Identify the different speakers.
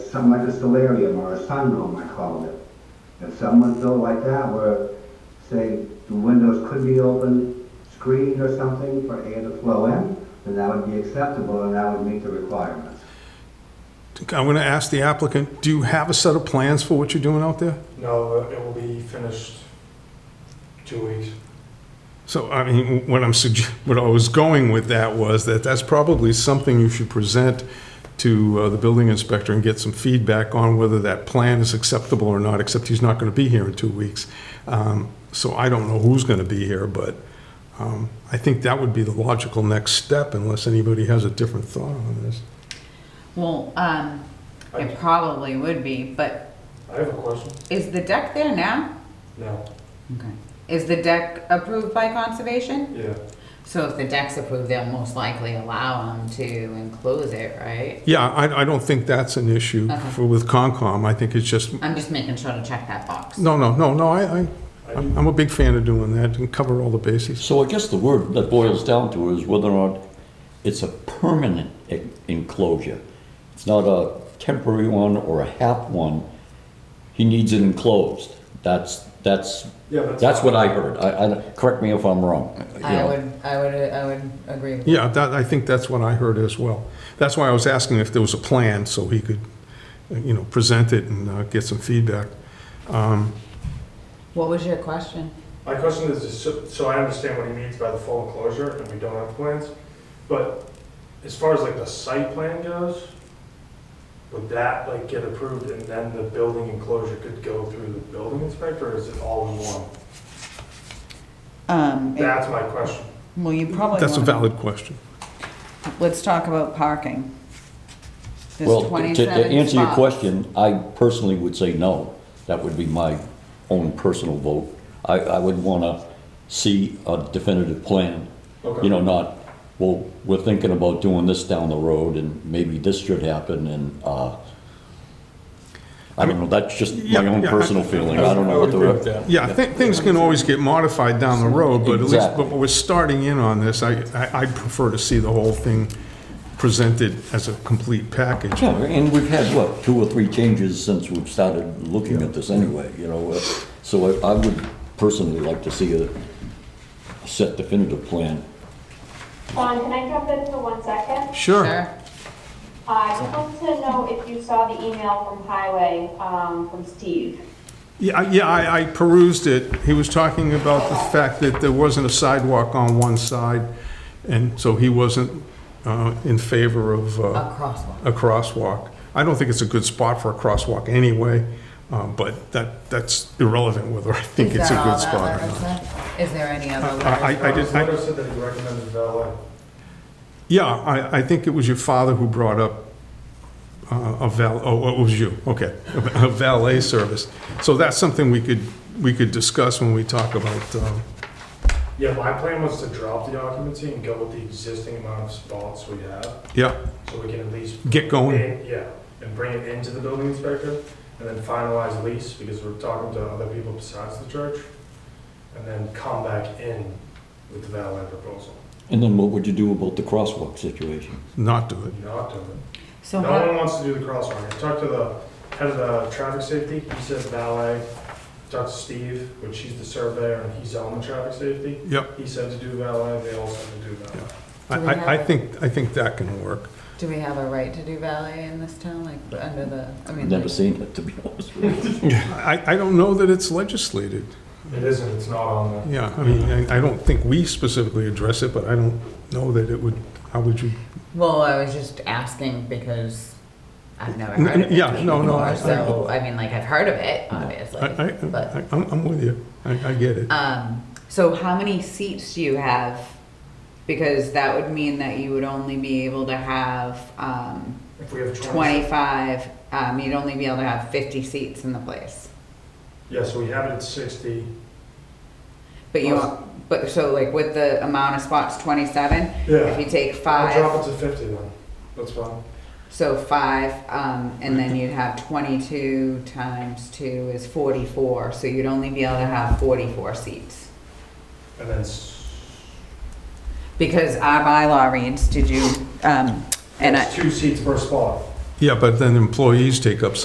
Speaker 1: something like a solarium or a sunroom, I called it. If someone built like that where, say, the windows could be open, screened or something for air to flow in, then that would be acceptable and that would meet the requirements.
Speaker 2: I'm going to ask the applicant, do you have a set of plans for what you're doing out there?
Speaker 3: No, it will be finished two weeks.
Speaker 2: So, I mean, what I'm, sugge- what I was going with that was that that's probably something you should present to uh, the building inspector and get some feedback on whether that plan is acceptable or not, except he's not going to be here in two weeks. Um, So I don't know who's going to be here, but um, I think that would be the logical next step unless anybody has a different thought on this.
Speaker 4: Well, um,
Speaker 3: I
Speaker 4: it probably would be, but
Speaker 3: I have a question.
Speaker 4: is the deck there now?
Speaker 3: No,
Speaker 4: Okay. Is the deck approved by conservation?
Speaker 3: yeah,
Speaker 4: So if the deck's approved, they'll most likely allow them to enclose it, right?
Speaker 2: Yeah, I I don't think that's an issue
Speaker 4: Okay.
Speaker 2: for- with Concom. I think it's just,
Speaker 4: I'm just making sure to check that box.
Speaker 2: no, no, no, no, I, I-
Speaker 3: I
Speaker 2: I'm I'm a big fan of doing that and cover all the bases.
Speaker 5: So I guess the word that boils down to is whether or not it's a permanent e- enclosure. It's not a temporary one or a half one. He needs it enclosed. That's, that's,
Speaker 3: Yeah, that's-
Speaker 5: that's what I heard. I, I, correct me if I'm wrong. you
Speaker 4: I
Speaker 5: know.
Speaker 4: would, I would, I would agree with you.
Speaker 2: Yeah, that, I think that's what I heard as well. That's why I was asking if there was a plan, so he could, uh, you know, present it and uh, get some feedback.
Speaker 4: What was your question?
Speaker 3: My question is, is so- so I understand what he means by the full enclosure, and we don't have plans, but as far as like the site plan goes, would that like get approved and then the building enclosure could go through the building inspector, or is it all in one?
Speaker 6: Um, it-
Speaker 3: That's my question.
Speaker 6: Well, you probably
Speaker 2: That's a
Speaker 6: wanna-
Speaker 2: valid question.
Speaker 6: Let's talk about parking. There's
Speaker 5: Well, to- to, to
Speaker 6: 27
Speaker 5: answer your
Speaker 6: spots.
Speaker 5: question, I personally would say no. That would be my own personal vote. I, I would wanna see a definitive plan.
Speaker 3: Okay.
Speaker 5: You know, not, well, we're thinking about doing this down the road and maybe this should happen and, uh, I don't know, that's just my
Speaker 2: Yeah,
Speaker 5: own
Speaker 2: yeah, I-
Speaker 5: personal feeling. I don't know what the. re-
Speaker 2: Yeah, I think things can always get modified down the road, but at least,
Speaker 5: Exactly.
Speaker 2: but we're starting in on this. I, I I'd prefer to see the whole thing presented as a complete package.
Speaker 5: Yeah, and we've had, what, two or three changes since we've started looking at this anyway, you know? uh, So I- I would personally like to see a a set definitive plan.
Speaker 7: Juan, Um, can I jump in for one second?
Speaker 2: Sure.
Speaker 4: Sure.
Speaker 7: Uh, I just wanted to know if you saw the email from Highway, um, from Steve.
Speaker 2: Yeah, I- yeah, I, I perused it. He was talking about the fact that there wasn't a sidewalk on one side, and so he wasn't uh, in favor of. uh,
Speaker 4: A crosswalk.
Speaker 2: a crosswalk. I don't think it's a good spot for a crosswalk anyway, uh, but that, that's irrelevant whether I think
Speaker 4: Is
Speaker 2: it's a
Speaker 4: that all
Speaker 2: good
Speaker 4: that
Speaker 2: spot or
Speaker 4: letter
Speaker 2: not.
Speaker 4: said? Is there any other letter?
Speaker 2: I, I- I
Speaker 3: His
Speaker 2: did, I-
Speaker 3: letter said that he recommended valet.
Speaker 2: yeah, I, I think it was your father who brought up uh, a val, oh, it was you, okay, a valet service. So that's something we could, we could discuss when we talk about, um,
Speaker 3: Yeah, my plan was to drop the occupancy and go with the existing amount of spots we have,
Speaker 2: yeah,
Speaker 3: so we can at least
Speaker 2: get going.
Speaker 3: And- Yeah, and bring it into the building inspector, and then finalize lease, because we're talking to other people besides the church, and then come back in with the valet proposal,
Speaker 5: And then what would you do about the crosswalk situation?
Speaker 2: Not do it.
Speaker 3: not do it.
Speaker 4: So
Speaker 3: No
Speaker 4: how,
Speaker 3: one wants to do the crosswalk, I talked to the head of the traffic safety, he says valet, talked to Steve, which he's the surveyor, and he's on the traffic safety,
Speaker 2: Yep.
Speaker 3: he said to do valet, they all said to do valet.
Speaker 2: I,
Speaker 4: Do we
Speaker 2: I- I
Speaker 4: have-
Speaker 2: think, I think that can work.
Speaker 4: do we have a right to do ballet in this town, like, under the, I mean,
Speaker 5: Never
Speaker 4: like,
Speaker 5: seen it, to be honest with you.
Speaker 2: I, I don't know that it's legislated.
Speaker 3: It isn't, it's not on the.
Speaker 2: Yeah, I mean, I I don't think we specifically address it, but I don't know that it would, how would you?
Speaker 4: well, I was just asking because I've never
Speaker 2: N-
Speaker 4: heard of it.
Speaker 2: yeah, no, no, I-
Speaker 4: before, So, I mean, like, I've heard of it, obviously,
Speaker 2: I, I,
Speaker 4: but.
Speaker 2: I- I'm I'm with you. I, I get it.
Speaker 4: Um, so how many seats do you have? Because that would mean that you would only be able to have, um,
Speaker 3: If we have twenty.
Speaker 4: twenty-five, um, you'd only be able to have fifty seats in the place.
Speaker 3: Yeah, so we have it at sixty,
Speaker 4: But you, but, so like with the amount of spots, twenty-seven,
Speaker 3: yeah.
Speaker 4: if you take
Speaker 3: I'll
Speaker 4: five,
Speaker 3: drop it to fifty then, that's fine.
Speaker 4: so five, um, and then you'd have twenty-two times two is forty-four, so you'd only be able to have forty-four seats.
Speaker 3: And then, s-
Speaker 4: Because our bylaw reads, did you, um, and I,
Speaker 3: it's two seats per spot.
Speaker 2: Yeah, but then employees take up